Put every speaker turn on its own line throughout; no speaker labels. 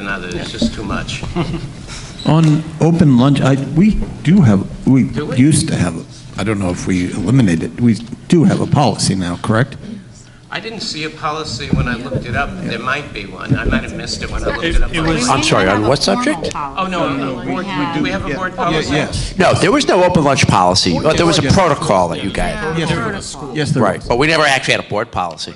another, it's just too much.
On open lunch, I, we do have, we
Do we?
used to have, I don't know if we eliminated, we do have a policy now, correct?
I didn't see a policy when I looked it up, there might be one, I might have missed it when I looked
It-
it up.
it was-
online.
I'm sorry, on what subject?
Oh, no, a board- do we have a board policy?
No, there was no open lunch policy. Well, There was a protocol that you guys,
Yes, there was. Yes, there
right,
was.
but we never actually had a board policy.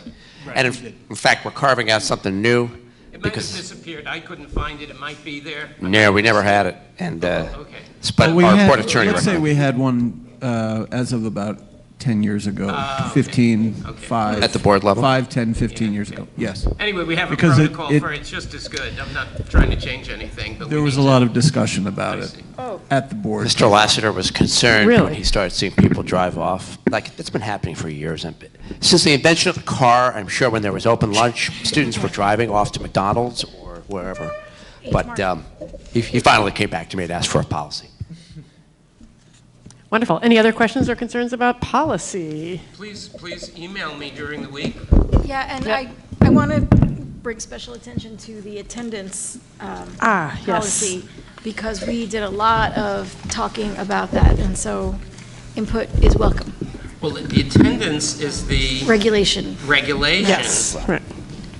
And in in fact, we're carving out something new
It might have
because,
disappeared, I couldn't find it, it might be there.
no, we never had it. And, uh,
Okay.
s- but
But we
our
had-
board attorney
Let's say
recommended.
we had one uh, as of about 10 years ago,
Ah, okay.
15,
Okay.
5.
At the board level?
5, 10, 15 years ago, yes.
Anyway, we have a
Because it-
protocol
it-
for it, it's just as good, I'm not trying to change anything, but we
There was
need
a
to-
lot of discussion about
I
it Oh.
see.
at the board.
Mr. Lassiter was concerned when
Really?
he started seeing people drive off. Like, it's been happening for years. And Since the invention of the car, I'm sure when there was open lunch, students were driving off to McDonald's or wherever. But um, he he finally came back to me and asked for a policy.
Wonderful. Any other questions or concerns about policy?
Please, please email me during the week.
Yeah, and
Yep.
I, I want to bring special attention to the attendance um,
Ah, yes.
policy, because we did a lot of talking about that, and so input is welcome.
Well, the attendance is the
Regulation.
regulation.
Yes. Right.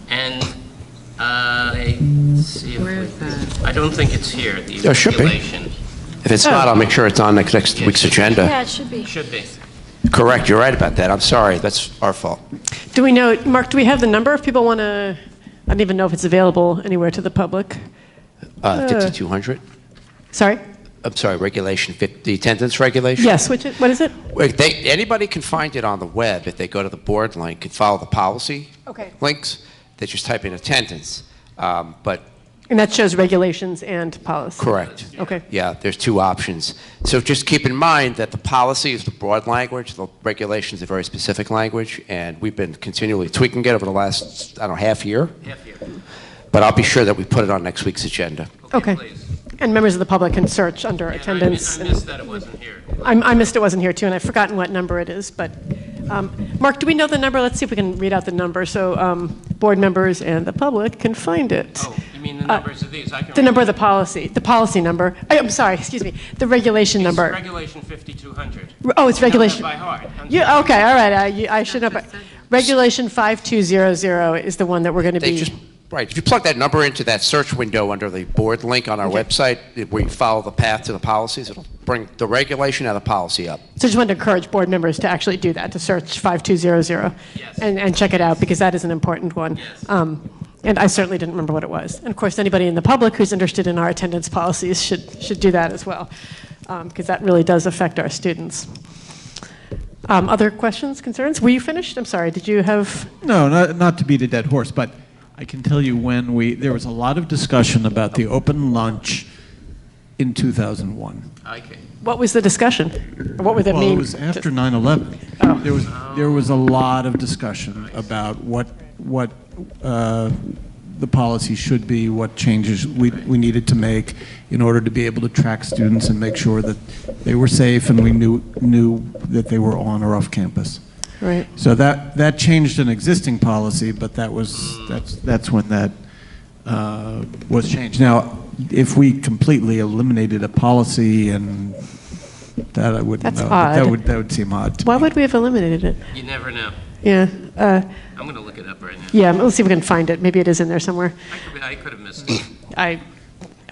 And uh, I see if we, I don't think it's here, the
There should be.
regulation.
If it's not, I'll make sure it's on next next week's
Yeah,
agenda.
it should be.
Should be.
Correct, you're right about that. I'm sorry, that's our fault.
Do we know, Mark, do we have the number if people want to, I don't even know if it's available anywhere to the public.
Uh, 5200?
Sorry?
I'm sorry, regulation, fif- the attendance regulation?
Yes, which, is- what is it?
Wait, they, anybody can find it on the web if they go to the board link and follow the policy
Okay.
links. They just type in attendance. Um, but
And that shows regulations and policy.
correct.
Okay.
Yeah, there's two options. So just keep in mind that the policy is the broad language, the regulations a very specific language, and we've been continually tweaking it over the last, I don't know, half year.
Half year.
But I'll be sure that we put it on next week's agenda.
Okay.
please.
And members of the public can search under
And I mi-
attendance.
I
and-
missed that it wasn't here.
I'm- I missed it wasn't here too, and I've forgotten what number it is, but, um, Mark, do we know the number? Let's see if we can read out the number so um, board members and the public can find it.
Oh, you mean the
Uh,
numbers of these? I can
The
read
number of
them.
the policy, the policy number. I- I'm sorry, excuse me, the regulation
It's
number.
Regulation 5200.
Oh, it's
I know that
regulation.
by heart. I'm
You, uh,
sorry.
okay, all right, I, you- I should have, regulation 5200 is the one that we're going to
They
be.
just, right, if you plug that number into that search window under the board link on our website, where you follow the path to the policies, it'll bring the regulation and the policy up.
So just wanted to encourage board members to actually do that, to search 5200.
Yes.
And, and check it out, because that is an important one.
Yes.
Um, And I certainly didn't remember what it was. And of course, anybody in the public who's interested in our attendance policies should, should do that as well, because that really does affect our students. Um, Other questions, concerns? Were you finished? I'm sorry, did you have?
No, not, not to beat a dead horse, but I can tell you when we, there was a lot of discussion about the open lunch in 2001.
Okay.
What was the discussion? What were the
well,
main?
it was after 9/11. There was there was a lot of discussion about what what uh, the policy should be, what changes we we needed to make in order to be able to track students and make sure that they were safe and we knew knew that they were on or off campus.
Right.
So that that changed an existing policy, but that was that's that's when that uh, was changed. Now, if we completely eliminated a policy and that I wouldn't
That's
know. but That
odd.
would, that would seem odd to
Why
me.
would we have eliminated it?
You never know.
Yeah, uh,
I'm going to look it up right now.
yeah, let's see if we can find it. Maybe it is in there somewhere.
I could- I could have missed it.
I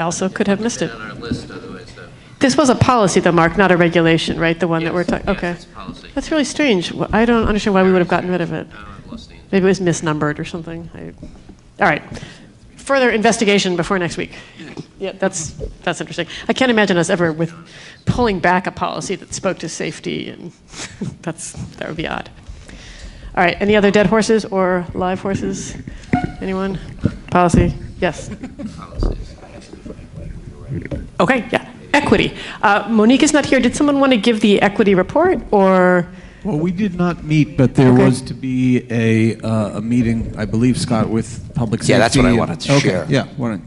also could have missed
It's
it.
on our list otherwise, though.
This was a policy though, Mark, not a regulation, right? The one that we're
Yes,
talking,
yes,
okay.
it's policy.
That's really strange. Well, I don't understand why we would have gotten rid of it.
No, I've lost the.
Maybe it was misnumbered or something. I- All right. Further investigation before next week. Yeah, that's, that's interesting. I can't imagine us ever with pulling back a policy that spoke to safety and that's, that would be odd. All right, any other dead horses or live horses? Anyone? Policy? Yes. Okay, yeah. Equity. Uh, Monique is not here. Did someone want to give the equity report or?
Well, we did not meet, but there
Okay.
was to be a, uh, a meeting, I believe, Scott, with public safety.
Yeah, that's what I
and-
wanted to share.
Okay, yeah, why don't-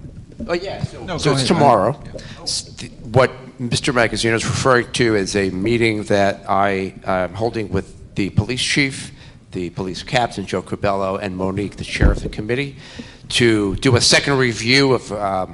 Oh, yeah, so,
go
it's
ahead.
tomorrow. S- th- What Mr. Magazino is referring to is a meeting that I am holding with the police chief, the police captain, Joe Corbello, and Monique, the chair of the committee, to do a second review of um,